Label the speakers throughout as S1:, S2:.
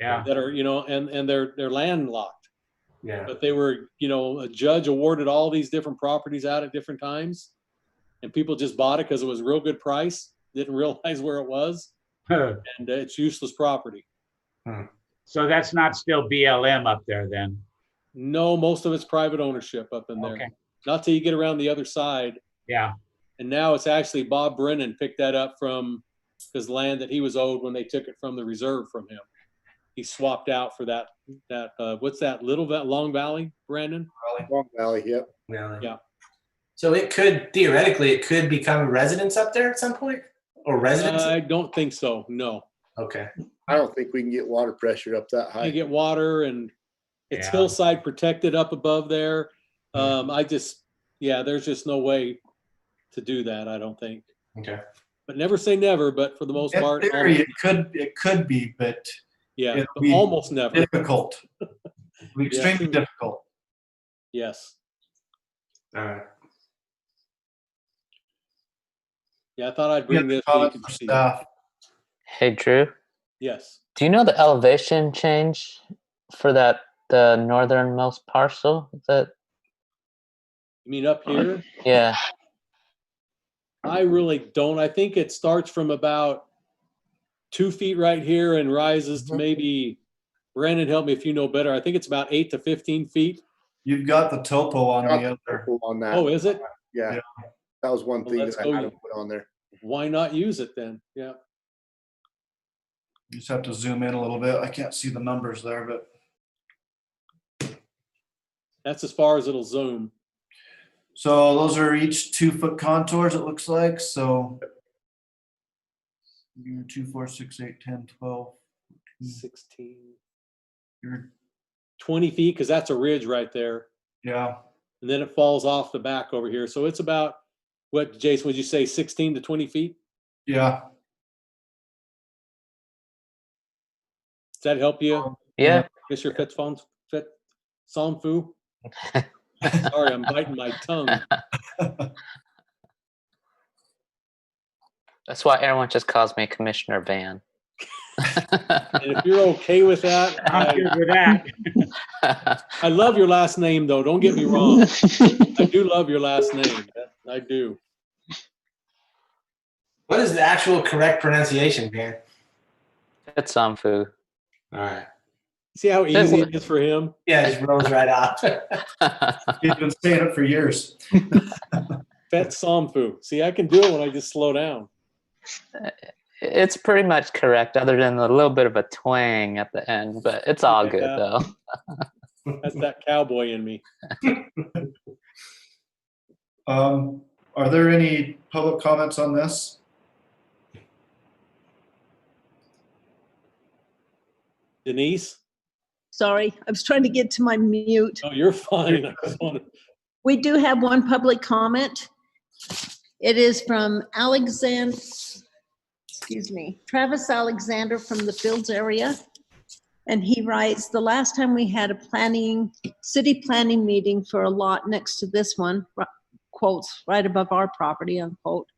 S1: Yeah,
S2: that are, you know, and, and they're, they're landlocked.
S1: yeah,
S2: But they were, you know, a judge awarded all these different properties out at different times. And people just bought it because it was a real good price, didn't realize where it was, and uh, it's useless property.
S1: so that's not still BLM up there then?
S2: No, most of it's private ownership up in there.
S1: Okay,
S2: Not till you get around the other side.
S1: yeah,
S2: And now it's actually Bob Brennan picked that up from his land that he was owed when they took it from the reserve from him. He swapped out for that, that, uh, what's that little, that Long Valley, Brandon?
S3: Long Valley, yep.
S4: Really?
S2: Yeah.
S4: So it could theoretically, it could become residence up there at some point, or residence.
S2: I don't think so, no.
S4: okay.
S3: I don't think we can get water pressure up that
S2: You
S3: high.
S2: get water and it's
S1: Yeah.
S2: hillside protected up above there. Um, I just, yeah, there's just no way to do that, I don't think.
S4: Okay.
S2: But never say never, but for the most
S5: In
S2: part,
S5: theory,
S2: almost-
S5: it could, it could be, but
S2: yeah,
S5: it'll
S2: but
S5: be-
S2: almost never,
S5: difficult. Extremely difficult.
S2: yes.
S4: All right.
S2: Yeah, I thought I'd
S5: We
S2: bring
S5: have
S2: this. so you
S5: cause
S2: could
S5: for
S2: see.
S5: stuff.
S6: Hey Drew,
S2: Yes.
S6: do you know the elevation change for that the northernmost parcel? Is That
S2: You mean up here?
S6: yeah,
S2: I really don't. I think it starts from about two feet right here and rises to maybe, Brandon, help me if you know better. I think it's about eight to 15 feet.
S5: You've got the topo on
S3: Got
S5: the other.
S3: On
S2: Oh,
S3: that,
S2: is it?
S3: yeah.
S5: yeah.
S3: That was one
S2: Well,
S3: thing
S2: let's
S3: that I
S2: go
S3: had to
S2: you-
S3: put on there.
S2: Why not use it then? Yeah.
S5: You just have to zoom in a little bit. I can't see the numbers there, but
S2: That's as far as it'll zoom.
S5: so those are each two foot contours, it looks like, so. You're two, four, six, eight, ten, twelve.
S2: 16,
S5: You're,
S2: 20 feet, because that's a ridge right there.
S5: yeah,
S2: And then it falls off the back over here. So it's about, what, Jason, would you say 16 to 20 feet?
S5: yeah.
S2: Does that help you?
S6: yeah.
S2: Mr. Fitzfon, Fit, Somfu? Sorry, I'm biting my tongue.
S6: That's why everyone just calls me Commissioner Van.
S2: And if you're okay with that,
S1: I'm
S2: I,
S1: good with that.
S2: I love your last name though, don't get me wrong. I do love your last name, I do.
S4: What is the actual correct pronunciation, Dan?
S6: it's some food.
S4: All right.
S2: See how
S6: That
S2: easy
S6: works.
S2: it is for him?
S4: Yeah, it just rolls right off.
S5: He's been saying it for years.
S2: Fet Somfu, see, I can do it when I just slow down.
S6: it's pretty much correct, other than a little bit of a twang at the end, but it's all good
S2: Yeah.
S6: though.
S2: That's that cowboy in me.
S5: Um, are there any public comments on this?
S2: Denise?
S7: Sorry, I was trying to get to my mute.
S2: Oh, you're fine. I just wanted,
S7: We do have one public comment. It is from Alexander, excuse me, Travis Alexander from the Fields area. And he writes, "The last time we had a planning, city planning meeting for a lot next to this one," r- quotes, "right above our property," unquote,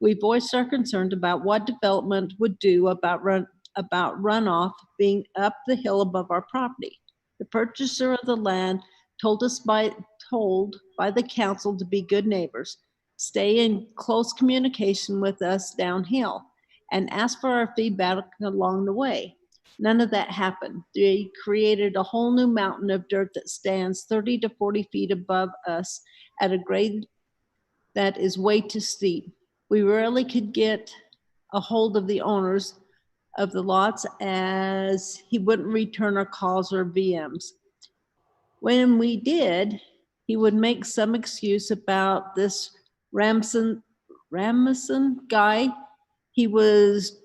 S7: "we voiced our concern about what development would do about run, about runoff being up the hill above our property. The purchaser of the land told us by, told by the council to be good neighbors, stay in close communication with us downhill, and ask for our feedback along the way. None of that happened. They created a whole new mountain of dirt that stands 30 to 40 feet above us at a grade that is way too steep. We rarely could get a hold of the owners of the lots as he wouldn't return our calls or VMs. When we did, he would make some excuse about this Ramson, Ramson guy. He was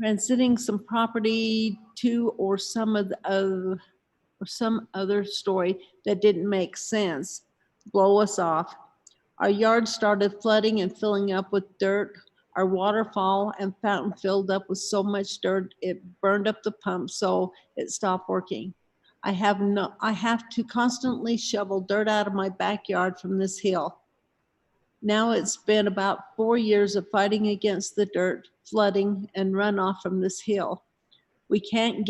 S7: transiting some property to or some of, the- of, or some other story that didn't make sense. Blow us off. Our yard started flooding and filling up with dirt. Our waterfall and fountain filled up with so much dirt, it burned up the pump, so it stopped working. I have no, I have to constantly shovel dirt out of my backyard from this hill. Now it's been about four years of fighting against the dirt, flooding, and runoff from this hill. We can't